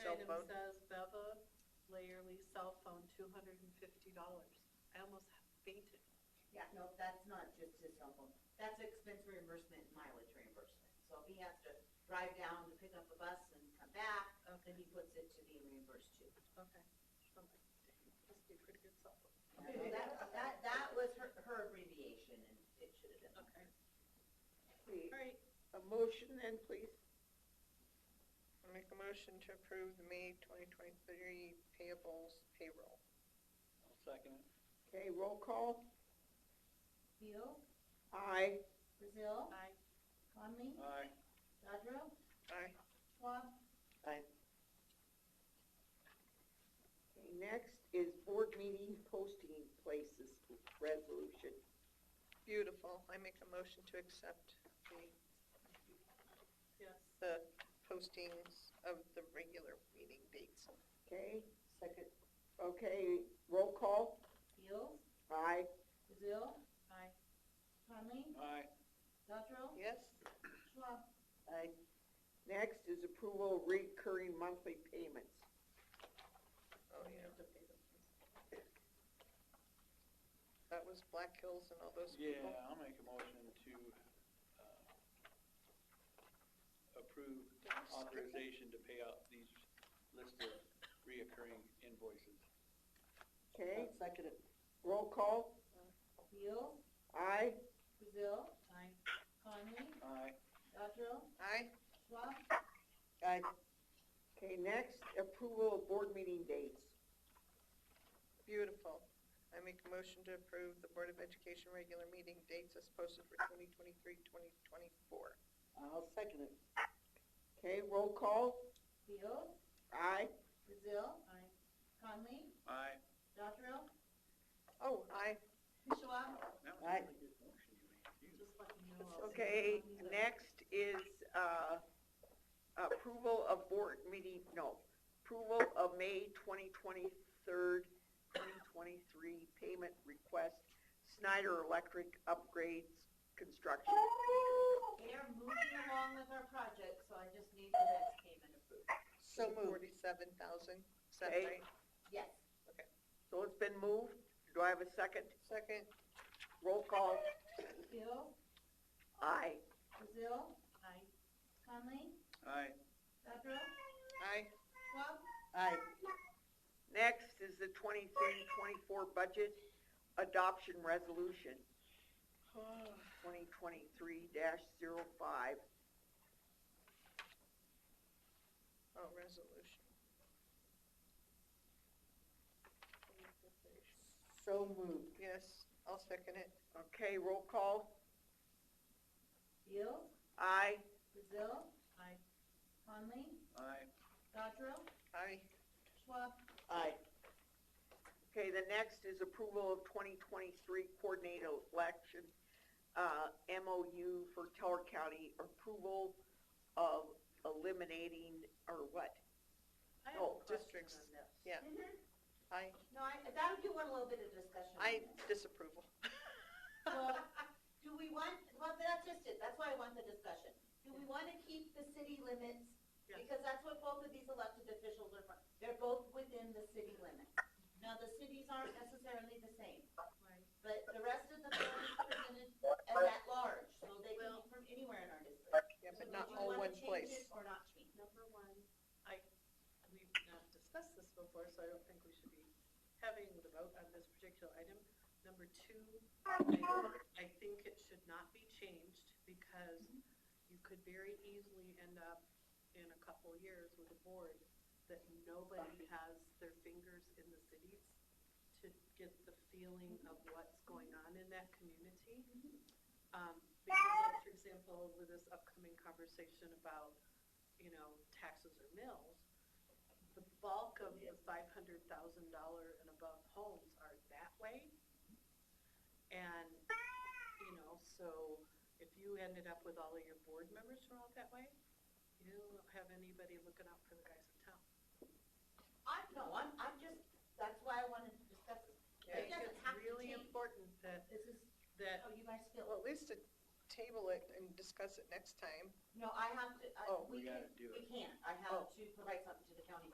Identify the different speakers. Speaker 1: Item
Speaker 2: phone?
Speaker 1: says Beva Layerly cell phone, two hundred and fifty dollars. I almost fainted.
Speaker 3: Yeah, no, that's not just his cell phone. That's expense reimbursement, and mileage reimbursement. So if he has to drive down to pick up a bus and come back, then he puts it to be reimbursed too.
Speaker 1: Okay. So, Must be a pretty good cell phone.
Speaker 3: Yeah, no, That, that, that was her, her abbreviation and it should have
Speaker 1: Okay.
Speaker 3: been.
Speaker 2: Okay,
Speaker 1: All right,
Speaker 2: A motion then, please.
Speaker 4: I make a motion to approve the May 2023 payables payroll.
Speaker 5: I'll second it.
Speaker 2: Okay, roll call.
Speaker 3: Keel,
Speaker 2: Aye.
Speaker 3: Brazil,
Speaker 1: aye.
Speaker 3: Conley,
Speaker 5: Aye.
Speaker 3: Dodger,
Speaker 4: Aye.
Speaker 3: Schwab.
Speaker 2: Okay, next is board meeting posting places resolution.
Speaker 4: Beautiful. I make a motion to accept the,
Speaker 1: Yes.
Speaker 4: the postings of the regular meeting dates.
Speaker 2: Okay? Second. Okay, roll call.
Speaker 3: Keel,
Speaker 2: Aye.
Speaker 3: Brazil,
Speaker 1: Aye.
Speaker 3: Conley,
Speaker 5: Aye.
Speaker 3: Dodger,
Speaker 4: Yes?
Speaker 3: Schwab.
Speaker 2: Aye. Next is approval of recurring monthly payments.
Speaker 4: Oh, yeah. That was Black Hills and all those people.
Speaker 5: Yeah, I'll make a motion to uh, approve authorization to pay out these list of reoccurring invoices.
Speaker 2: Okay?
Speaker 6: Second it.
Speaker 2: Roll call.
Speaker 3: Keel,
Speaker 2: Aye.
Speaker 3: Brazil,
Speaker 1: Aye.
Speaker 3: Conley,
Speaker 5: Aye.
Speaker 3: Dodger,
Speaker 4: Aye?
Speaker 3: Schwab.
Speaker 6: Aye.
Speaker 2: Okay, next, approval of board meeting dates.
Speaker 4: Beautiful. I make a motion to approve the Board of Education regular meeting dates as posted for 2023, 2024.
Speaker 6: I'll second it.
Speaker 2: Okay, roll call.
Speaker 3: Keel,
Speaker 2: Aye.
Speaker 3: Brazil,
Speaker 1: Aye.
Speaker 3: Conley,
Speaker 5: Aye.
Speaker 3: Dodger,
Speaker 4: Oh, aye.
Speaker 3: Schwab.
Speaker 5: That was a
Speaker 6: Aye.
Speaker 5: really good motion you made. Jesus.
Speaker 1: Just let me know. I'll send
Speaker 2: Okay,
Speaker 1: you one.
Speaker 2: next is, uh, approval of board meeting, no, approval of May twenty twenty-third, twenty twenty-three payment request, Snyder Electric upgrades construction.
Speaker 3: We are moving along with our project, so I just need the next payment approved.
Speaker 6: So moved.
Speaker 4: 47,000, is that
Speaker 2: Okay.
Speaker 4: right?
Speaker 3: Yes.
Speaker 2: So it's been moved, do I have a second?
Speaker 4: Second,
Speaker 2: Roll call,
Speaker 3: Keel,
Speaker 2: aye.
Speaker 3: Brazil,
Speaker 1: Aye.
Speaker 3: Conley,
Speaker 5: Aye.
Speaker 3: Dodger,
Speaker 4: aye.
Speaker 3: Schwab.
Speaker 6: Aye.
Speaker 2: Next is the 23-24 budget adoption resolution, twenty twenty-three 5
Speaker 4: Oh, resolution.
Speaker 6: So moved.
Speaker 4: Yes, I'll second it.
Speaker 2: Okay, roll call,
Speaker 3: Keel,
Speaker 2: aye.
Speaker 3: Brazil,
Speaker 1: Aye.
Speaker 3: Conley,
Speaker 5: Aye.
Speaker 3: Dodger,
Speaker 4: Aye.
Speaker 3: Schwab.
Speaker 6: Aye.
Speaker 2: Okay, the next is approval of 2023 coordinated election, uh, MOU for Teller County, approval of eliminating, or what?
Speaker 1: I have
Speaker 2: Oh,
Speaker 1: a question
Speaker 4: districts.
Speaker 1: on this.
Speaker 4: Yeah. Aye.
Speaker 3: Mm-hmm. No, I, that, you want a little bit of discussion on
Speaker 4: I
Speaker 3: this.
Speaker 4: disapproval.
Speaker 3: Well, Do we want, well, that's just it, that's why I want the discussion. Do we want to keep the city limits?
Speaker 1: Yes.
Speaker 3: Because that's what both of these elected officials are from, they're both within the city limits. Now, the cities aren't necessarily the same,
Speaker 1: Right.
Speaker 3: but the rest of the board is presented as at large, so they can be
Speaker 1: Well-
Speaker 3: from anywhere in our district.
Speaker 4: Yeah,
Speaker 3: So
Speaker 4: but
Speaker 3: do
Speaker 4: not
Speaker 3: you
Speaker 4: all
Speaker 3: wanna
Speaker 4: one
Speaker 3: change
Speaker 4: place.
Speaker 3: it Or not change.
Speaker 1: Number one, I, we've not discussed this before, so I don't think we should be having the vote on this particular item. Number two, I, I think it should not be changed because you could very easily end up in a couple years with a board that nobody has their fingers in the cities to get the feeling of what's going on in that community. Um, because like, for example, with this upcoming conversation about you know, taxes or mills, the bulk of the five hundred thousand dollar and above homes are that way. And, you know, so if you ended up with all of your board members from all that way, you don't have anybody looking out for the guys in town.
Speaker 3: I, no, I'm, I'm just, that's why I wanted to discuss this.
Speaker 1: I
Speaker 3: It
Speaker 1: think
Speaker 3: doesn't
Speaker 1: it's
Speaker 3: have to
Speaker 1: really
Speaker 3: change.
Speaker 1: important that,
Speaker 3: This is
Speaker 1: that,
Speaker 3: how you guys feel.
Speaker 4: Well, at least to table it and discuss it next time.
Speaker 3: No, I have to, I,
Speaker 4: Oh,
Speaker 3: we
Speaker 5: We
Speaker 3: can
Speaker 5: gotta do
Speaker 3: We
Speaker 5: it. Oh.
Speaker 3: can't, I have to provide something to the county